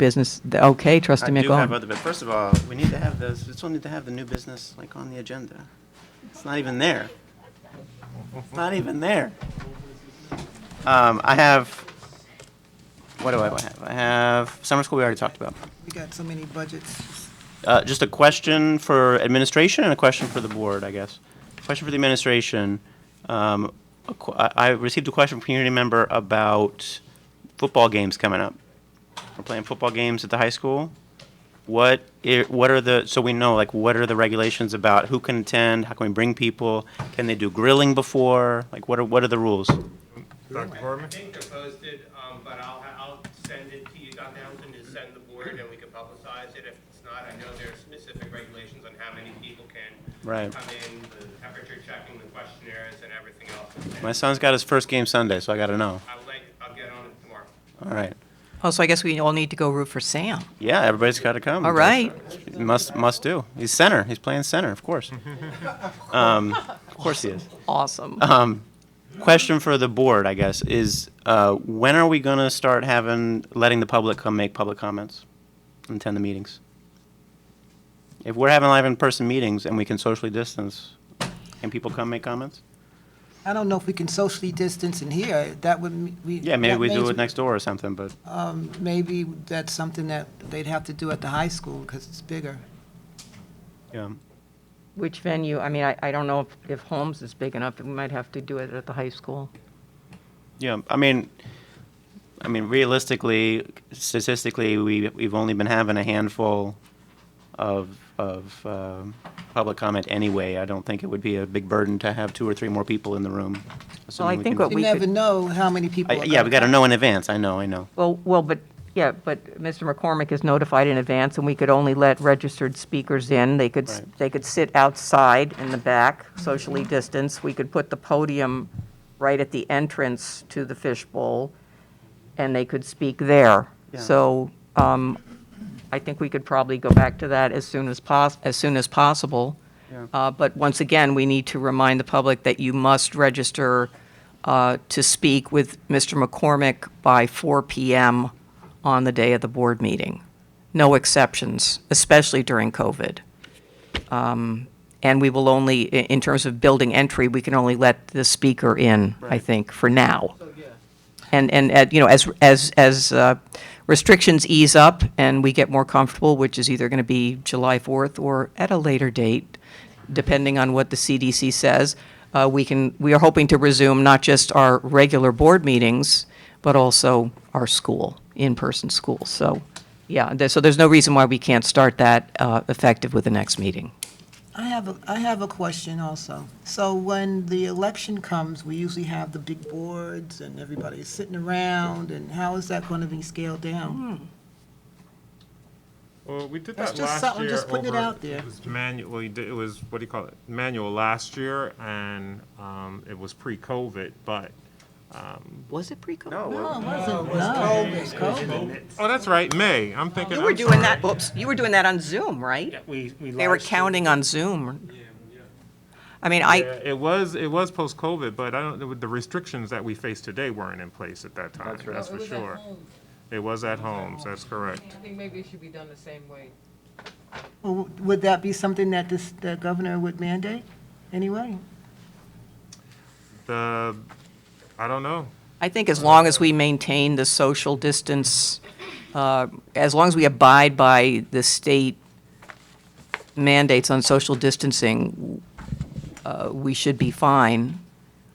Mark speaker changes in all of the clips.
Speaker 1: business, th- okay, trustee
Speaker 2: I do have
Speaker 1: McGowan.
Speaker 2: other, but first of all, we need to have those, we still need to have the new business, like, on the agenda. It's not even there. It's not even there. Um, I have, what do I have? I have, summer school we already talked about.
Speaker 3: We got so many budgets.
Speaker 2: Uh, just a question for administration and a question for the board, I guess. Question for the administration. Um, a qu- I I received a question from a community member about football games coming up. We're playing football games at the high school. What, i- what are the, so we know, like, what are the regulations about who can attend? How can we bring people? Can they do grilling before? Like, what are, what are the rules?
Speaker 4: Dr. Gorman?
Speaker 5: I think they're posted, um, but I'll, I'll send it to you, Dr. Hamilton, to send the board, and we can publicize it. If it's not, I know there are specific regulations on how many people can
Speaker 2: Right.
Speaker 5: come in, the temperature checking, the questionnaires, and everything else.
Speaker 2: My son's got his first game Sunday, so I gotta know.
Speaker 5: I'll let, I'll get on it tomorrow.
Speaker 2: All right.
Speaker 1: Oh, so I guess we all need to go root for Sam.
Speaker 2: Yeah, everybody's got to come.
Speaker 1: All right.
Speaker 2: Must must do. He's center. He's playing center, of course. um, of course he is.
Speaker 1: Awesome.
Speaker 2: Um, question for the board, I guess, is uh, when are we going to start having letting the public come make public comments and attend the meetings? If we're having live in-person meetings and we can socially distance, can people come make comments?
Speaker 3: I don't know if we can socially distance in here. That would, m- we.
Speaker 2: Yeah, maybe
Speaker 3: that
Speaker 2: we do
Speaker 3: means-
Speaker 2: it next door or something, but
Speaker 3: Um, maybe that's something that they'd have to do at the high school because it's bigger.
Speaker 2: yeah.
Speaker 1: Which venue, I mean, I, I don't know if, if Holmes is big enough, we might have to do it at the high school.
Speaker 2: Yeah, I mean, I mean, realistically, statistically, we, we've only been having a handful of, of um, public comment anyway. I don't think it would be a big burden to have two or three more people in the room.
Speaker 1: Well, I
Speaker 2: assuming we
Speaker 1: think
Speaker 2: can-
Speaker 1: what
Speaker 3: You
Speaker 1: we
Speaker 3: never
Speaker 1: could,
Speaker 3: know how many people.
Speaker 2: I-
Speaker 3: are
Speaker 2: Yeah, we
Speaker 3: gonna
Speaker 2: got to
Speaker 3: come.
Speaker 2: know in advance, I know, I know.
Speaker 1: well, well, but, yeah, but Mr. McCormick is notified in advance, and we could only let registered speakers in. They could, s-
Speaker 2: Right.
Speaker 1: they could sit outside in the back, socially distanced. We could put the podium right at the entrance to the fishbowl, and they could speak there.
Speaker 2: Yeah.
Speaker 1: So, um, I think we could probably go back to that as soon as pos, as soon as possible.
Speaker 2: Yeah.
Speaker 1: Uh, But once again, we need to remind the public that you must register uh, to speak with Mr. McCormick by 4 PM on the day of the board meeting. No exceptions, especially during COVID. Um, And we will only, i- in terms of building entry, we can only let the speaker in, I think, for now. And, and, uh, you know, as, as, as uh, restrictions ease up and we get more comfortable, which is either going to be July 4th or at a later date, depending on what the CDC says, uh, we can, we are hoping to resume not just our regular board meetings, but also our school, in-person school. So, yeah, there- so there's no reason why we can't start that uh, effective with the next meeting.
Speaker 3: I have, a I have a question also. So when the election comes, we usually have the big boards and everybody's sitting around and how is that going to be scaled down?
Speaker 4: Well, we did
Speaker 3: That's
Speaker 4: that
Speaker 3: just
Speaker 4: last
Speaker 3: something-
Speaker 4: year
Speaker 3: just putting it
Speaker 4: over-
Speaker 3: out there.
Speaker 4: It was manual, well, you did- it was, what do you call it, manual last year, and um, it was pre-COVID, but,
Speaker 1: Was it pre-COVID?
Speaker 3: No, Oh, it wasn't. No, it was COVID.
Speaker 4: oh, that's right, May, I'm thinking.
Speaker 1: You were
Speaker 4: I'm
Speaker 1: doing
Speaker 4: sorry.
Speaker 1: that, oops, you were doing that on Zoom, right?
Speaker 5: We, we.
Speaker 1: They were counting on Zoom. I mean, I,
Speaker 4: Yeah, It was, it was post-COVID, but I don't, know the restrictions that we face today weren't in place at that time, that's for sure. It was at home, so that's correct.
Speaker 6: I think maybe it should be done the same way.
Speaker 3: Well, Would that be something that this, the governor would mandate anyway?
Speaker 4: The, I don't know.
Speaker 1: I think as long as we maintain the social distance, uh, as long as we abide by the state mandates on social distancing, uh, we should be fine.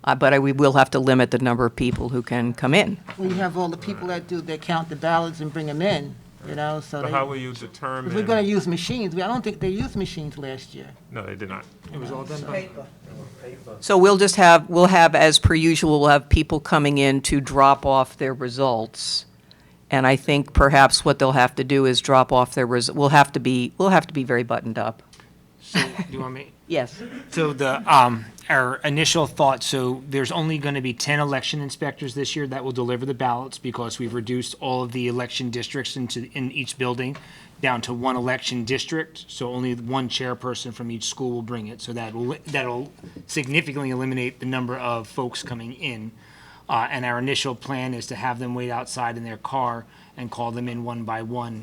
Speaker 1: Uh, But I- we will have to limit the number of people who can come in.
Speaker 3: Well, you have all the people that do, they count the ballots and bring them in, you know, so
Speaker 4: But how will
Speaker 3: they,
Speaker 4: you determine?
Speaker 3: if we're gonna use machines, we- I don't think they used machines last year.
Speaker 4: No, they did not.
Speaker 1: So we'll just have, we'll have, as per usual, we'll have people coming in to drop off their results. And I think perhaps what they'll have to do is drop off their, res- we'll have to be, we'll have to be very buttoned up.
Speaker 7: So, do you want me?
Speaker 1: Yes.
Speaker 7: So the, um, our initial thought, so there's only going to be ten election inspectors this year that will deliver the ballots because we've reduced all of the election districts into, in each building down to one election district, so only one chairperson from each school will bring it, so that will, that'll significantly eliminate the number of folks coming in. Uh, and our initial plan is to have them wait outside in their car and call them in one by one